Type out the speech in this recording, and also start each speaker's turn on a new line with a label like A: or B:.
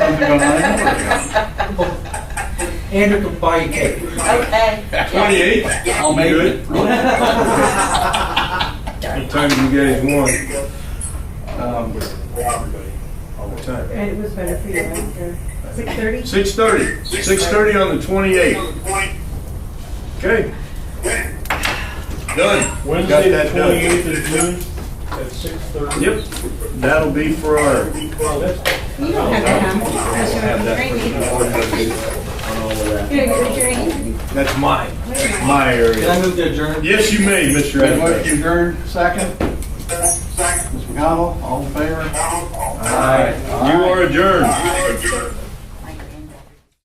A: Andrew can buy you cake.
B: Okay.
C: Twenty-eight?
D: I'll make it.
C: What time did you guys want?
A: Um,
C: What time?
E: And it was better for you after six thirty?
C: Six thirty. Six thirty on the twenty-eighth. Okay. Done. Got
F: Wednesday, the
C: that done.
F: twenty-eighth of June at six thirty.
C: Yep, that'll be for our,
F: Well, that's,
E: You don't have to come, because you're on the training. You're gonna get your training.
C: that's mine, that's
D: Can
C: my
D: I
C: area.
D: move to adjourn?
C: Yes, you may, Mr.
D: Motion
C: Adams.
D: adjourned, second. Mr. McConnell, all in favor?
C: You are adjourned.
G: All right.